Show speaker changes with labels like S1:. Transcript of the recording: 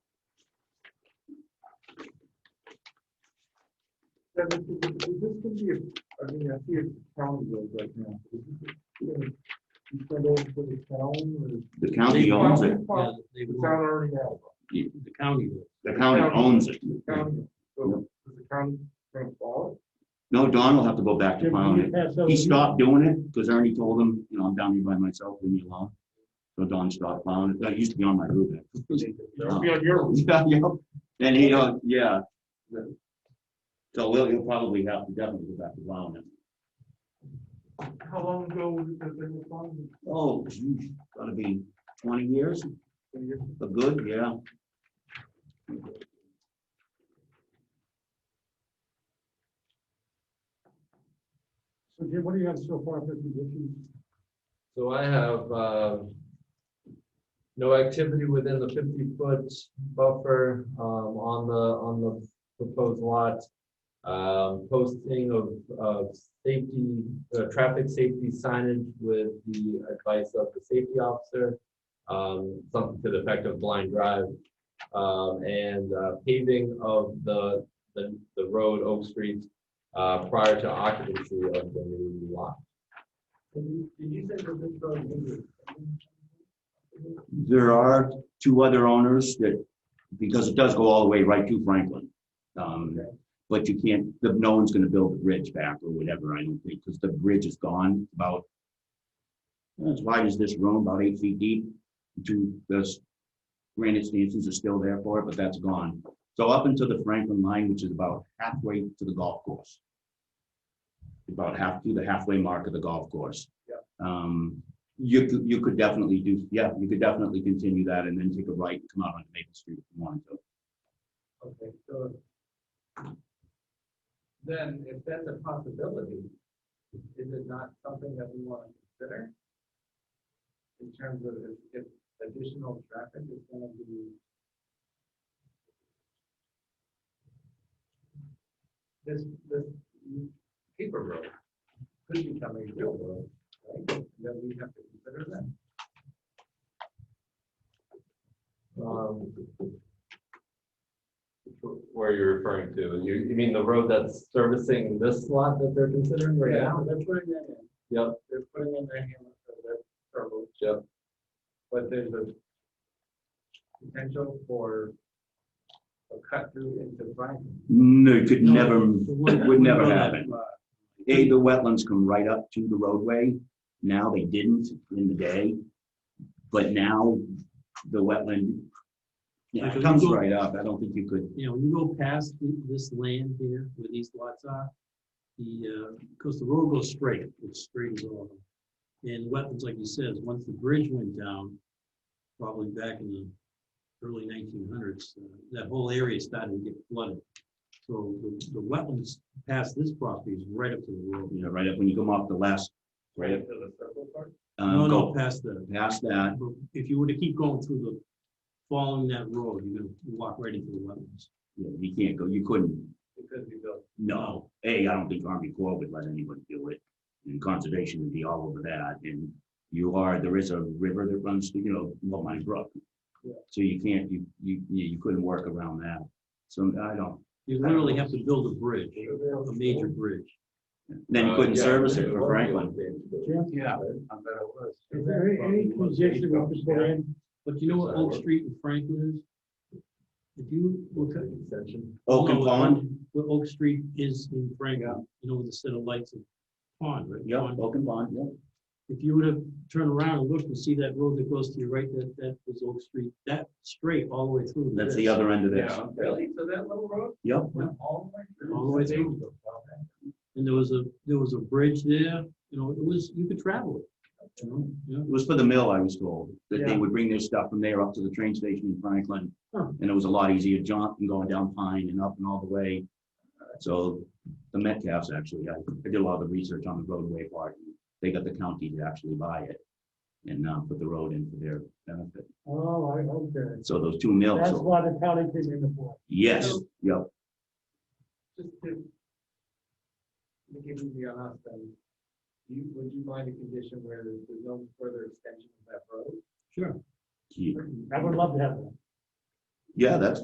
S1: And this is- is this can be, a- I mean, I see a county road right now. Is this- you know, you send over to the town
S2: The
S1: or?
S2: county owns it.
S1: The town already has it.
S2: The
S3: The county. will.
S2: county owns it.
S1: The county, so is the county gonna follow?
S2: No, Don will have to go back to plowing it.
S4: Pass those
S2: He stopped doing it because Ernie told him, you know, I'm down here by myself, leave me alone. So Don stopped plowing it. That used to be on my roof. actually.
S1: It'll be on your,
S2: Yeah, yeah. And he, uh, yeah. So we'll, he'll probably have to definitely go back to plowing it.
S1: how long ago was it that they were following?
S2: Oh, geez, gotta be twenty years,
S1: It's
S2: a good, yeah.
S4: So Jim, what do you have so far for conditions?
S3: So I have, uh, no activity within the fifty foot buffer, um, on the, on the proposed lot. Um, posting of, of safety, uh, traffic safety signage with the advice of the safety officer. Um, something to the effect of blind drive, um, and uh, paving of the, the, the road, Oak Street, uh, prior to occupancy of the new lot.
S2: There are two other owners that, because it does go all the way right to Franklin. Um, but you can't, the- no one's gonna build the bridge back or whatever, I don't think, because the bridge is gone about as wide as this room, about eight feet deep, two, this granite stanchions are still there for it, but that's gone. So up into the Franklin line, which is about halfway to the golf course. About half, to the halfway mark of the golf course. Yeah. Um, you, could- you could definitely do, yeah, you could definitely continue that and then take a right and come out onto Maple Street if you wanted to.
S3: Okay, so. Then if that's a possibility, is it not something that we want to consider? In terms of if, if additional traffic is gonna be. This, this paper road could become a real road, right? Then we have to consider that. Um, where you're referring to, you, you mean the road that's servicing this lot that they're considering right now?
S4: They're putting that in.
S3: Yep. They're putting in their hamlet for their, for road. Yep. But there's a potential for a cut through into Brighton.
S2: No, it could never, would never
S4: Well,
S2: happen. A, the wetlands come right up to the roadway. Now they didn't in the day. But now the wetland, yeah, it comes right up. I don't think you could,
S5: you know, you go past th- this land here where these lots are, the, uh, because the road goes straight, it's straight as all. And wetlands, like you said, once the bridge went down, probably back in the early nineteen hundreds, uh, that whole area started to get flooded. So the, the wetlands past this property is right up to the road.
S2: you know, right up when you come off the last, right up,
S3: Into the circle part?
S2: uh,
S5: No, no,
S2: go
S5: past the,
S2: past that.
S5: if you were to keep going through the, following that road, you're gonna walk right into the wetlands.
S2: Yeah, You can't go, you couldn't
S3: Because we built.
S2: No, A, I don't think Army Corps would let anybody do it, and conservation would be all over that, and you are, there is a river that runs, through, you know, well, my brook. So you can't, you, you, you you couldn't work around that, so I don't,
S5: You literally have to build a bridge, a major bridge.
S2: then you
S3: Uh,
S2: couldn't
S3: yeah,
S2: service
S3: there
S2: it for
S3: was
S2: Franklin.
S3: one. Yeah. I bet it was.
S4: Is there any- any condition we could put in?
S5: But you know what
S3: Does that
S5: Oak
S3: work?
S5: Street and Franklin is? If you look at.
S3: Extension.
S2: Oak and
S5: No,
S2: Pond,
S5: What Oak Street is in Franklin, you know, with a set of lights and pond, right?
S2: yeah,
S5: Pond.
S2: Oak and Pond, yeah.
S5: If you were to turn around and look and see that road that goes to your right, that, that was Oak Street, that straight all the way through.
S2: That's
S5: this,
S2: the other end of this,
S3: Yeah, really? So that little road
S2: yep,
S3: went all the way through?
S5: All the way through. And there was a, there was a bridge there, you know, it was, you could travel it. you know, yeah.
S2: it was for the mill, I was told, that they
S5: Yeah.
S2: would bring their stuff from there up to the train station in Franklin.
S5: Huh.
S2: And it was a lot easier jaunt than going down Pine and up and all the way. Uh, So the Metcalfs actually, I I did a lot of the research on the roadway part. They got the county to actually buy it and uh, put the road in for their benefit.
S4: Oh, I, okay.
S2: So those two mills,
S4: That's
S2: so-
S4: why the county came in the board.
S2: yes, yep,
S3: Just to. Give me on us then. Do you, would you mind a condition where there's there's no further extension of that road?
S5: Sure.
S2: Gee,
S4: I would love to have that.
S2: yeah, that's